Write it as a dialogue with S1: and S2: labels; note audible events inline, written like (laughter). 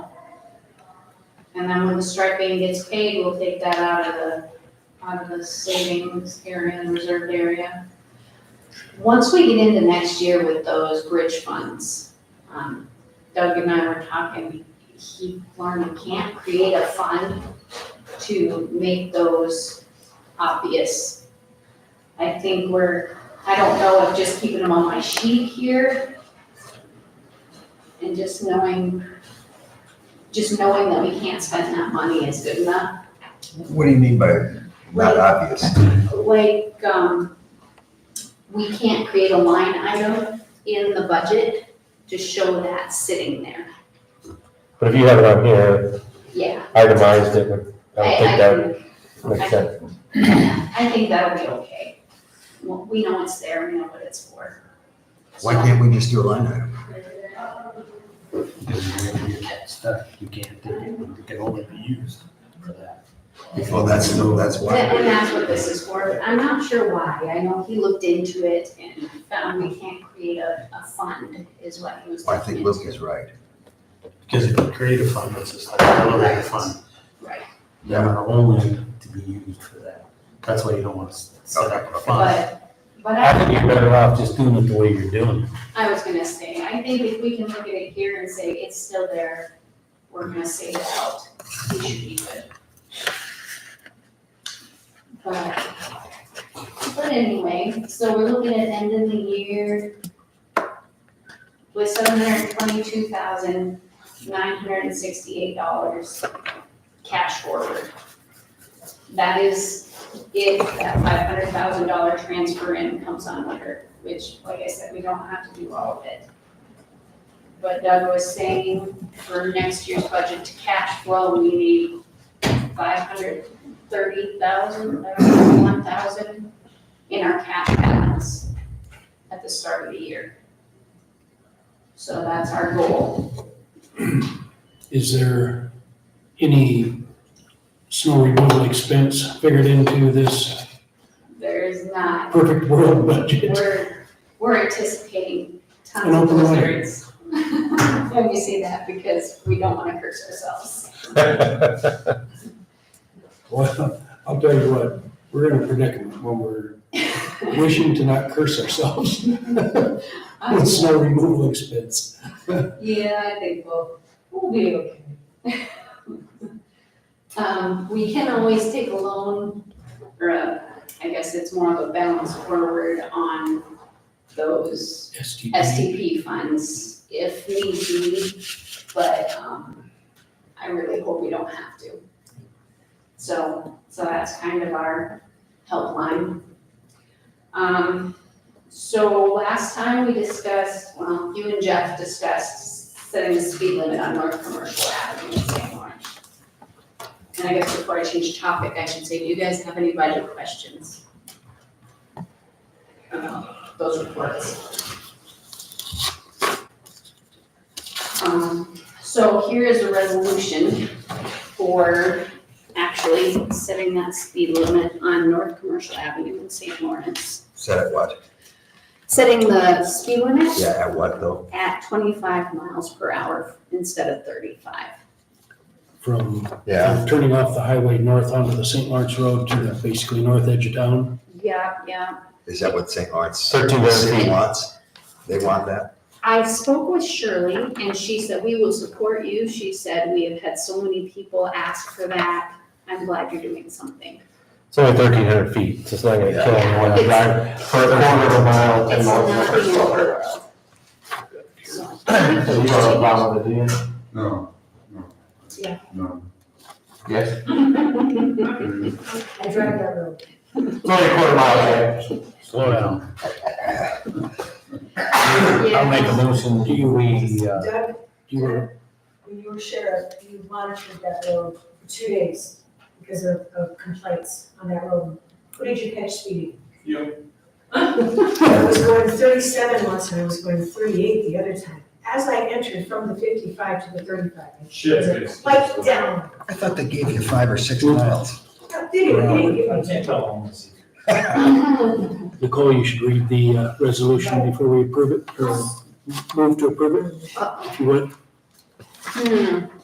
S1: And then when the striping gets paid, we'll take that out of the, out of the savings area and reserved area. Once we get into next year with those bridge funds, um, Doug and I were talking, he learned we can't create a fund to make those obvious. I think we're, I don't know if just keeping them on my sheet here and just knowing, just knowing that we can't spend that money is good enough.
S2: What do you mean by
S1: Like-
S2: not obvious?
S1: like, um, we can't create a line item in the budget to show that sitting there,
S3: But if you have it on here,
S1: yeah.
S3: itemized, it would, I would think that
S1: I-
S3: would make sense.
S1: I think- I think that'll be okay. Well, We know it's there, we know what it's for.
S2: Why can't we just do a line item?
S4: Because you get stuck, you can't take it, it can only be used for that.
S2: Well, that's, that's
S1: So- And and
S2: why.
S1: that's what this is for, but I'm not sure why, I know he looked into it and found we can't create a, a fund, is what he was
S2: I
S1: looking
S2: think
S1: into.
S2: Luke is right.
S4: Because if you create a fund, it's just like an elevator fund.
S1: Right.
S4: They are only to be used for that. That's why you don't want to set up a fund.
S1: But, but I.
S3: I think you're better off just doing it the way you're doing it.
S1: I was gonna say, I think if we can look at it here and say it's still there, we're gonna save it out, we should be good. But, but anyway, so we're looking at end of the year with seven hundred twenty-two thousand nine hundred and sixty-eight dollars cash forward. That is if that five hundred thousand dollar transfer in comes on under which, like I said, we don't have to do all of it. But Doug was saying for next year's budget to cash flow, we need five hundred thirty thousand, uh, one thousand in our cash balance at the start of the year. So that's our goal.
S5: Is there any snow removal expense figured into this
S1: There is not,
S5: perfect world budget? (laughs)
S1: we're, we're anticipating tons
S5: An
S1: of
S5: open letter.
S1: lizards. (laughs) Let me say that because we don't wanna curse ourselves. (laughs)
S5: Well, I'll tell you what, we're in a predicament when we're wishing to not curse ourselves (laughs) with snow removal expense.
S1: Yeah, I think we'll, we'll be okay. (laughs) Um, we can always take a loan, or a- I guess it's more of a balance forward on those
S5: STP.
S1: STP funds if need be, but, um, I really hope we don't have to. So, so that's kind of our helpline. Um, so last time we discussed, well, you and Jeff discussed setting the speed limit on North Commercial Avenue in St. Lawrence. And I guess before I change topic, I should say, do you guys have any budget questions? About those reports? Um, so here is a resolution for actually setting that speed limit on North Commercial Avenue in St. Lawrence.
S2: Said at what?
S1: Setting the speed limit
S2: Yeah, at what though?
S1: at twenty-five miles per hour instead of thirty-five.
S5: From from turning off the highway north onto the St. Lawrence Road to the basically north edge of town.
S1: Yeah, yeah.
S2: Is that what St. Lawrence?
S3: 1300
S2: City
S3: feet.
S2: wants? They want that?
S1: I spoke with Shirley and she said, we will support you. She said, we have had so many people ask for that. I'm glad you're doing something.
S3: (laughs) It's only thirteen hundred feet, so it's not gonna kill anyone to drive for a quarter of a mile. to
S1: It's not
S3: North
S1: the end of the (laughs) world. So,
S3: Dakota. So you don't have a problem with it, do you?
S6: No, no.
S1: Yeah.
S6: No.
S3: Yes.
S7: I drive that road.
S3: It's only a quarter mile, right?
S4: Slow down.
S3: I'll make a motion,
S5: Do you,
S3: we, uh,
S7: Doug,
S5: do you,
S7: when you were sheriff, you monitored that road for two days because of, of complaints on that road. What did you catch speeding?
S6: Yep.
S7: I was going thirty-seven once and I was going thirty-eight the other time. As I entered from the fifty-five to the thirty-five,
S6: Shit.
S7: it was like down.
S2: I thought they gave you five or six
S5: Mm.
S2: miles. (laughs)
S7: Did it, did it, did it?
S5: Nicole, you should read the uh, resolution before we approve it, or move to approve it,
S1: Uh-oh.
S5: if you would.
S1: Hmm,